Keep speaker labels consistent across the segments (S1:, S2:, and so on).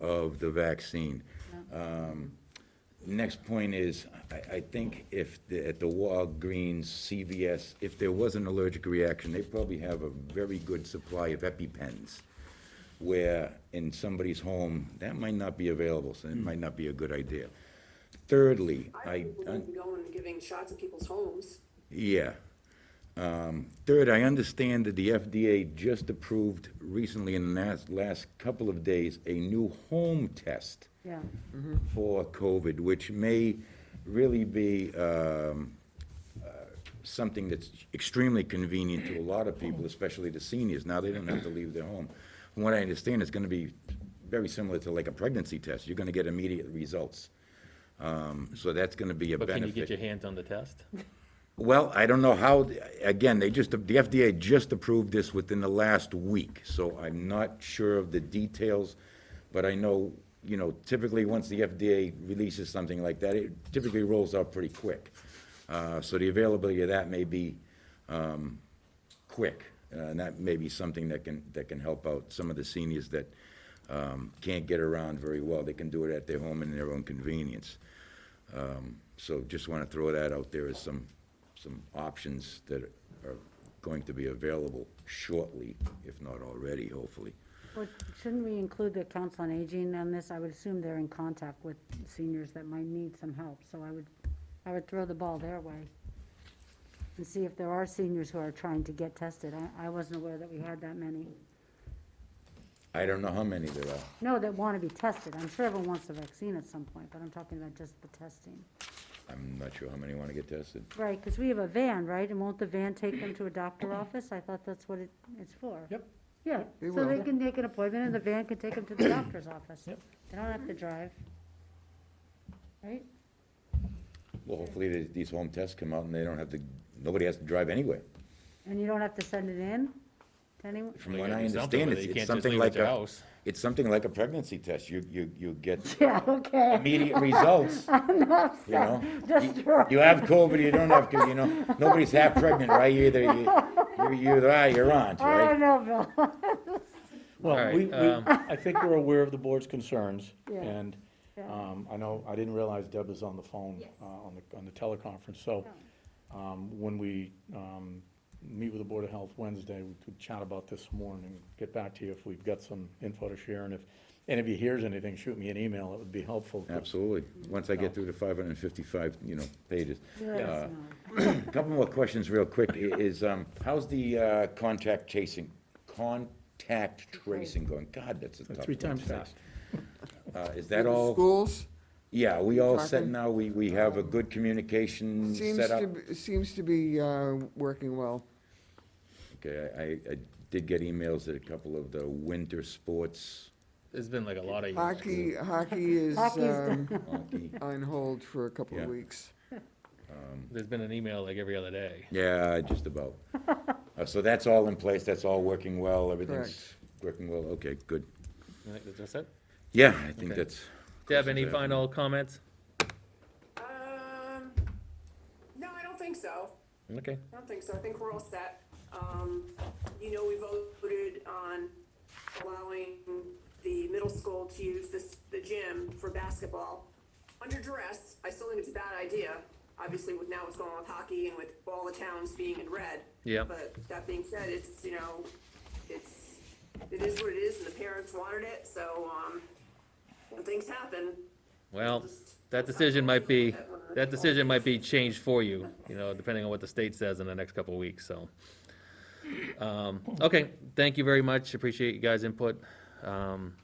S1: of the vaccine. Um, Next point is, I, I think if, the- at the Walgreens, CVS, if there was an allergic reaction, they probably have a very good supply of EpiPens, where in somebody's home, that might not be available, so it might not be a good idea. Thirdly, I,
S2: think we
S1: I-
S2: need to go and giving shots at people's homes.
S1: yeah. Um, Third, I understand that the FDA just approved recently in the last, last couple of days, a new home test
S3: Yeah,
S4: Mm-hmm.
S1: for COVID, which may really be um, uh, something that's extremely convenient to a lot of people, especially the seniors. Now, they don't have to leave their home. From what I understand, it's going to be very similar to like a pregnancy test. You're going to get immediate results. Um, So that's going to be a
S4: But
S1: benefit.
S4: can you get your hands on the test?
S1: Well, I don't know how, again, they just, the FDA just approved this within the last week, so I'm not sure of the details, but I know, you know, typically, once the FDA releases something like that, it typically rolls out pretty quick. Uh, So the availability of that may be um, quick, uh, and that may be something that can, that can help out some of the seniors that um, can't get around very well. They can do it at their home and their own convenience. So just want to throw that out there as some, some options that are going to be available shortly, if not already, hopefully.
S3: but shouldn't we include the council on aging on this? I would assume they're in contact with seniors that might need some help, so I would, I would throw the ball their way. And see if there are seniors who are trying to get tested. I, I wasn't aware that we had that many.
S1: I don't know how many there are.
S3: No, that want to be tested. I'm sure everyone wants the vaccine at some point, but I'm talking about just the testing.
S1: I'm not sure how many want to get tested.
S3: Right, because we have a van, right? And won't the van take them to a doctor office? I thought that's what it, it's for.
S4: Yep.
S3: Yeah,
S5: They
S3: so they
S5: will.
S3: can make an appointment and the van can take them to the doctor's office.
S4: Yep.
S3: They don't have to drive. Right?
S1: Well, hopefully, the- these home tests come out and they don't have to, nobody has to drive anywhere.
S3: And you don't have to send it in to anyone?
S1: From
S4: They
S1: what
S4: gotta
S1: I
S4: do something
S1: understand,
S4: with it.
S1: it's
S4: You
S1: it's
S4: can't just
S1: something
S4: leave it at
S1: like
S4: your
S1: a,
S4: house.
S1: it's something like a pregnancy test. You, you, you get
S3: Yeah, okay.
S1: immediate results,
S3: I'm not
S1: you know?
S3: upset.
S1: You-
S3: Just throw-
S1: You have COVID, you don't have, COVID. you know, nobody's half pregnant, right? You Either, you, you either are, you're on,
S3: I
S1: right?
S3: don't know, Bill.
S4: All
S5: Well,
S4: right,
S5: we, we,
S4: um,
S5: I think we're aware of the board's concerns,
S3: Yeah.
S5: and,
S3: Yeah.
S5: um, I know, I didn't realize Deb was on the phone,
S3: Yes.
S5: uh, on the, on the teleconference, so, um, when we, um, meet with the Board of Health Wednesday, we could chat about this more and get back to you if we've got some info to share, and if, and if he hears anything, shoot me an email, it would be helpful.
S1: Absolutely. Once I get through the 555, you know, pages. Uh,
S3: Let us know.
S1: A Couple more questions real quick i- is, um, how's the uh, contact chasing, contact tracing going? God, that's a tough
S5: Three
S1: word
S5: times
S1: to say.
S5: fast.
S1: Uh, Is that all,
S6: Schools
S1: yeah, we all set
S6: Talking.
S1: now? We, we have a good communication
S6: seems
S1: set up?
S6: to, be- seems to be uh, working well.
S1: Okay, I, I- I did get emails at a couple of the winter sports,
S4: There's been like a lot of.
S6: Hockey, hockey is
S3: Hockey's
S6: um,
S1: hockey.
S6: on hold for a couple
S1: Yeah.
S6: of weeks.
S4: There's been an email like every other day.
S1: Yeah, just about. Uh, So that's all in place, that's all working well, everything's working well? Okay, good.
S4: You think that's- That's it?
S1: Yeah, I think
S4: Okay.
S1: that's.
S4: Deb, any
S1: Yeah.
S4: final comments?
S2: Um, no, I don't think so.
S4: Okay.
S2: I don't think so. I think we're all set. Um, you know, we voted on allowing the middle school to use this, the gym for basketball under duress. I still think it's a bad idea, obviously with now what's going on with hockey and with all the towns being in red.
S4: Yeah.
S2: But that being said, it's, you know, it's, it is what it is and the parents wanted it, so, um, when things happen,
S4: Well, that decision might be, that decision might be changed for you, you know, depending on what the state says in the next couple of weeks, so. Um, okay, thank you very much. Appreciate you guys' input. Um,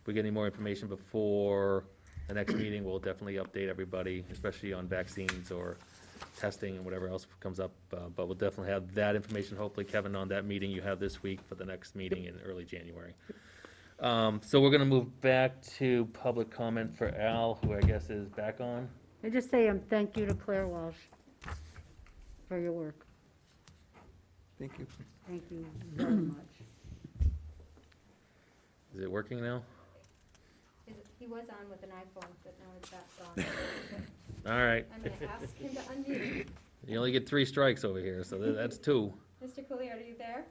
S4: if we get any more information before the next meeting, we'll definitely update everybody, especially on vaccines or testing and whatever else comes up. Uh, but we'll definitely have that information, hopefully, Kevin, on that meeting you have this week for the next meeting in early January. Um, so we're gonna move back to public comment for Al, who I guess is back on.
S3: I just say um, thank you to Claire Walsh for your work.
S6: Thank you.
S3: Thank you very much.
S4: Is it working now?
S7: Is it- He was on with an iPhone, but now it's back on.
S4: All right,
S7: I'm gonna ask him to unmute.
S4: you only get three strikes over here, so tha- that's two.
S7: Mr. Cooley, are you there?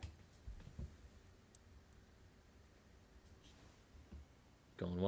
S4: Going